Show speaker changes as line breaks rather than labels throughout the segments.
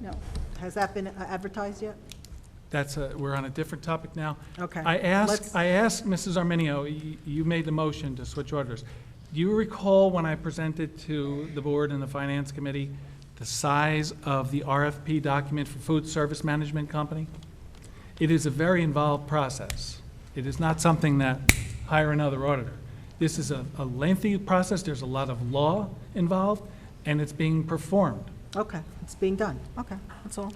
No. Has that been advertised yet?
That's a, we're on a different topic now.
Okay.
I
Let's-
asked, I asked Mrs. Arminio, y- you made the motion to switch orders. Do you recall when I presented to the board and the finance committee the size of the RFP document for food service management company? It is a very involved process. It is not something that hire another auditor. This is a a lengthy process, there's a lot of law involved, and it's being performed.
Okay, it's being done. Okay, that's all.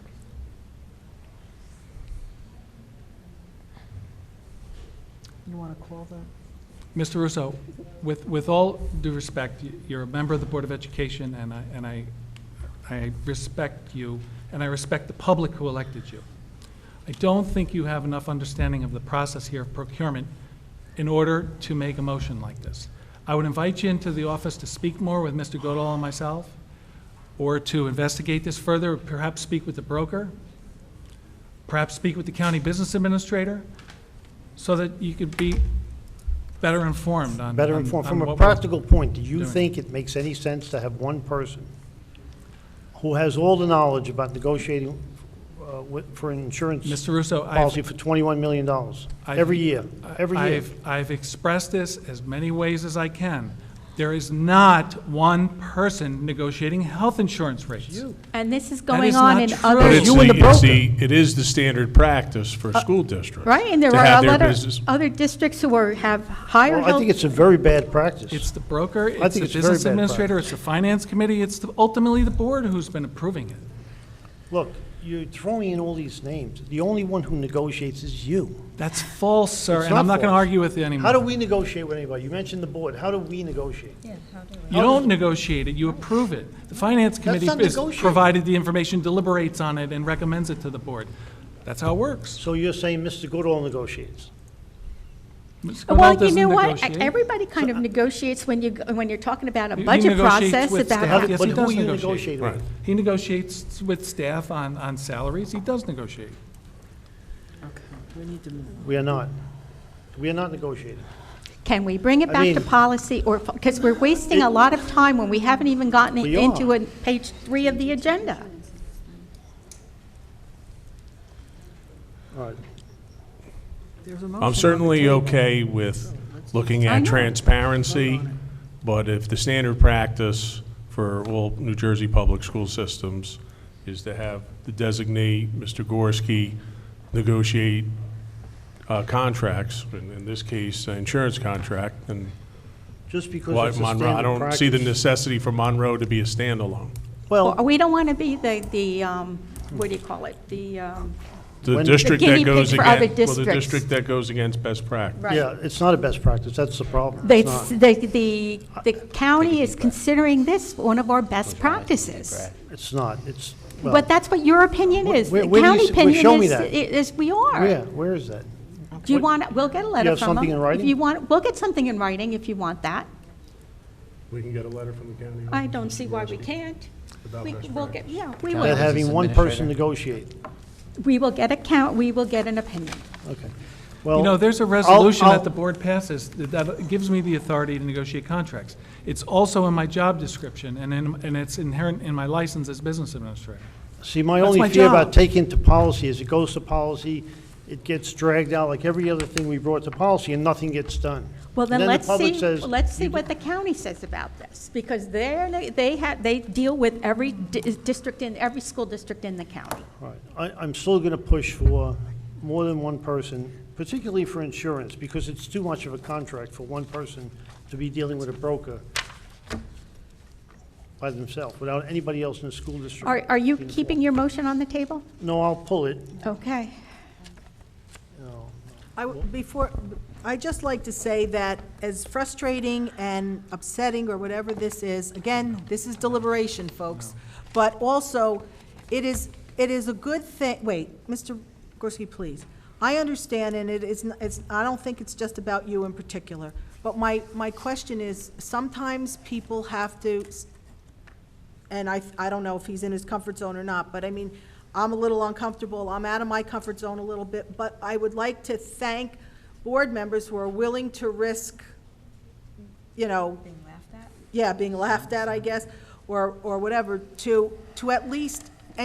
You want to call the,
Mr. Russo, with, with all due respect, y- you're a member of the Board of Education, and I, and I, I respect you, and I respect the public who elected you. I don't think you have enough understanding of the process here of procurement in order to make a motion like this. I would invite you into the office to speak more with Mr. Godall and myself, or to investigate this further, perhaps speak with the broker, perhaps speak with the county business administrator, so that you could be better informed on.
Better
on-
informed,
on
from a
what we're-
practical point, do you
doing.
think it makes any sense to have one person who has all the knowledge about negotiating uh, wi- for an insurance
Mr. Russo, I've.
policy for $21 million
I've-
every year, every year?
I've, I've expressed this as many ways as I can. There is not one person negotiating health insurance rates.
And this is
is
going on
not
in
true.
other,
But
There's
it's
you and
the,
the
it's the, it is the standard practice for school districts.
Uh, right? And there
to
are
have their
other,
business-
other districts who are, have higher
Well, I think
health.
it's a very bad practice.
It's the broker,
I
it's the
think it's very
business
bad
administrator, it's the finance committee, it's the- ultimately the board who's been approving it.
Look, you're throwing in all these names. The only one who negotiates is you.
That's false, sir,
It's
and I'm
not
not going to
false.
argue with you anymore.
How do we negotiate with anybody? You mentioned the board. How do we negotiate?
You don't negotiate it, you approve it. The finance committee
not
is
negotiating.
provided the information, deliberates on it, and recommends it to the board. That's how it works.
So you're saying Mr. Goodall negotiates?
Ms. Cornell
Well, you
doesn't
know what?
negotiate.
Everybody kind
uh,
of negotiates when you, go- when you're talking about a
You- you
budget
negotiate
process,
with
about
staff.
how-
Yes,
But
he
who
does
are you
negotiate.
negotiating with?
Right.
He negotiates with staff on, on salaries, he does negotiate.
We are not. We are not negotiating.
can we bring it
I
back to
mean-
policy or, because we're wasting a lot of time when we haven't even gotten
We are.
into a- page three of the agenda.
All right.
there's a motion.
I'm certainly okay with looking
I
at
know.
transparency, but if the standard practice for all New Jersey public school systems is to have the designate, Mr. Gorski, negotiate uh, contracts, in in this case, an insurance contract, and
Just because
why
it's a
Monroe, I
standard
don't see the
practice.
necessity for Monroe to be a
Or
standalone.
Well,
We don't want to be the, the, um, what do you call it? The, um,
The
When-
district
The guinea
that
pig
goes
for other
against, well, the
districts.
district that goes against best practice.
right.
yeah, it's not a best practice. That's the problem.
They,
It's not.
the, the, the county is considering this one of our best practices.
It's not. It's, well,
But that's what your opinion
Wh-
is.
where-
The
where do you
county
s- where- show
opinion
me
is,
that.
is we are.
where, where is that?
Do you want, we'll get a letter
have
from them.
something in writing?
If you want, we'll get something in writing if you want that.
We can get a letter from the county.
I don't see why we can't.
About
We,
best
we'll get, yeah, we
That
will.
having one person negotiate.
We will get a count, we will get an opinion.
Okay.
You know,
Well,
there's a resolution
I'll-
that the board passes that- that gives me the authority to negotiate contracts. It's also in my job description, and in, and it's inherent in my license as business administrator.
see, my
that's
only
my
fear about
job.
taking to policy is it goes to policy, it gets dragged out like every other thing we brought to policy and nothing gets done.
Well,
And
then
the
let's
public
see,
says,
let's see
you
what the county says about this, because they're, they have, they deal with every di- district in, every school district in the county.
All right. I, I'm still going to push for more than one person, particularly for insurance, because it's too much of a contract for one person to be dealing with a broker by themselves, without anybody else in the school district.
Are, are you
being involved.
keeping your motion on the table?
No, I'll pull it.
Okay.
No.
I w- Before, i just like to say that as frustrating and upsetting or whatever this is, again, this is deliberation, folks, but also, it is, it is a good thing, wait, Mr. Gorski, please. I understand, and it is, n- it's, I don't think it's just about you in particular, but my, my question is, sometimes people have to s- and I, I don't know if he's in his comfort zone or not, but I mean, I'm a little uncomfortable, I'm out of my comfort zone a little bit, but I would like to thank board members who are willing to risk, you know. Being laughed at? Yeah, being laughed at, I guess, or, or whatever, to, to at least